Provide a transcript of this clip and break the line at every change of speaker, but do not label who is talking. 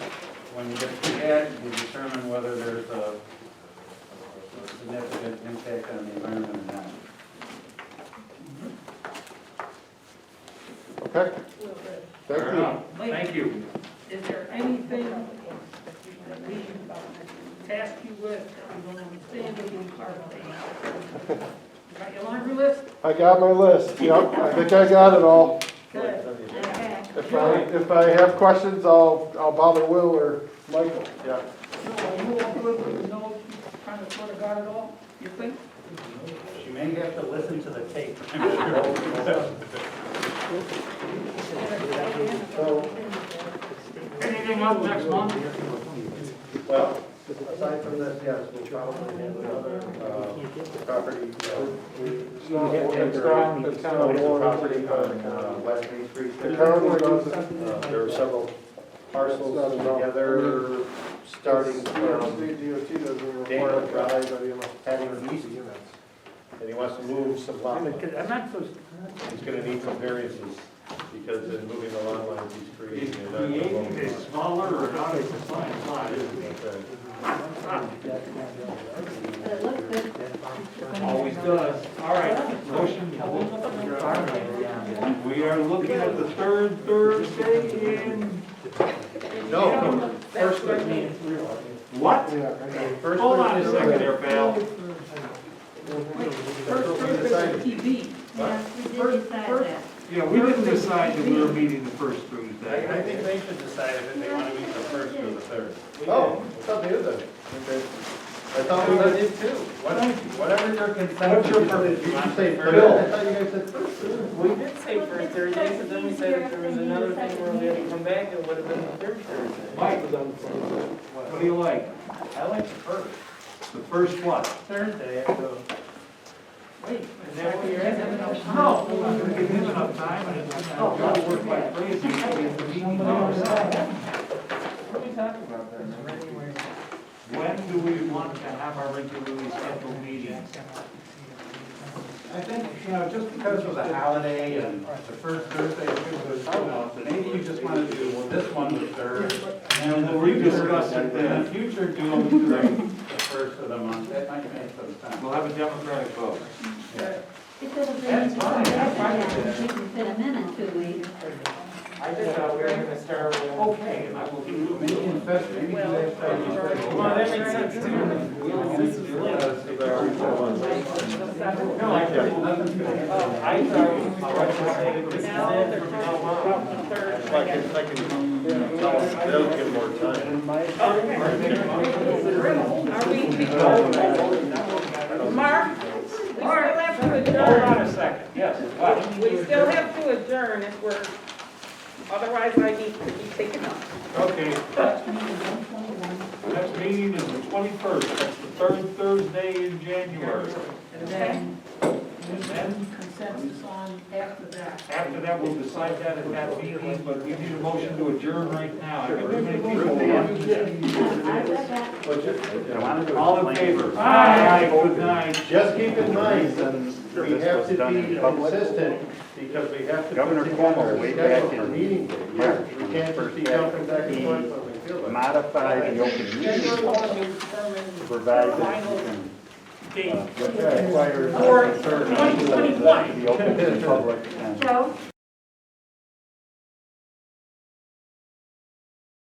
when you get to the ad, you determine whether there's a a significant impact on the environment or not.
Okay, thank
Fair
you.
enough. Thank you.
Is there anything that we uh, task you with that you don't understand that you part of it? You Got your laundry list?
I got my list, yep, I think I got it all.
Good. Okay.
If I, if I have questions, I'll, I'll bother Will or Michael, yeah.
No, you won't do it with no, kind of sort of got it all, you think?
She may have to listen to the tape.
Anything else next month?
Well, aside from this, yes, we'll probably have another, uh, property. The town
It's a
owns,
property on uh, West Main Street.
the town owns it.
Uh, There are several parcels together, starting from,
DOT doesn't
Daniel
require
Drive.
anybody else.
Having easy and he wants to move some lot lines.
I'm not so.
He's gonna need some variances, because in moving the lot lines, he's creating. a lot of-
smaller or not, it's a fine lot, isn't it?
Okay.
Always does. All right, motion. We are looking at the third Thursday in.
No.
First
What? Hold on a second there, pal.
First, first is TV.
Yes, we did decide that.
Yeah, we didn't decide that we were meeting the first
I, I
Thursday.
think they should decide if they wanna meet the first or the third.
Oh,
it's up to you then. I thought we were,
did too.
whatever, whatever your consent.
What's your
is,
purpose?
if you want to say first.
Bill, I thought you guys said first.
We did say first Thursday, so then we said if there was another thing where we had to come back, it would have been the third Thursday.
Mike, what do you like?
I like the first.
The first what?
Thursday, so.
Wait,
Is that what you're asking?
No, we're gonna give him enough time and it's gonna gotta work like crazy. When
What are we talking about then?
do we want to have our regularly scheduled meetings?
I think, you know, just because of the holiday and the first Thursday, it was so long, maybe you just wanna do, well, this one the third. And then
We'll
we
rediscuss
discuss
it
it
then.
in the future, do them during the first of the month, that might make some sense.
We'll have a democratic vote.
It could have been,
That's
we
fine, that's fine.
could fit them in in two weeks.
I just thought we were gonna start with.
Okay, and I will give you.
Maybe in Feb- maybe next
Well,
time you say,
Well, that makes sense too. No, I
Yeah, nothing's gonna happen.
I thought, I was gonna say this is it from now on.
Third, okay.
That'll give more time.
Are we, Mark, we still have to adjourn.
Hold on a second, yes, what?
We still have to adjourn if we're, otherwise I need to be taken up.
Okay. Next meeting is the twenty-first, that's the third Thursday in January.
Okay?
And then,
Consensus on after that.
after that, we'll decide that at that meeting, but we need a motion to adjourn right now. I've got too many people.
I said that.
All in favor? Aye. Good night.
Just keep in mind, that we have to be consistent, because we have to.
Governor
put
Cuomo,
together a
way
schedule
back
for
in
Meeting days.
March,
We can't just be
first
jumping back and
he
forth when we feel like. it.
Modify the open meeting law to provide that you can
Date.
require
For
concern
2021.
to be open to the public and
Joe,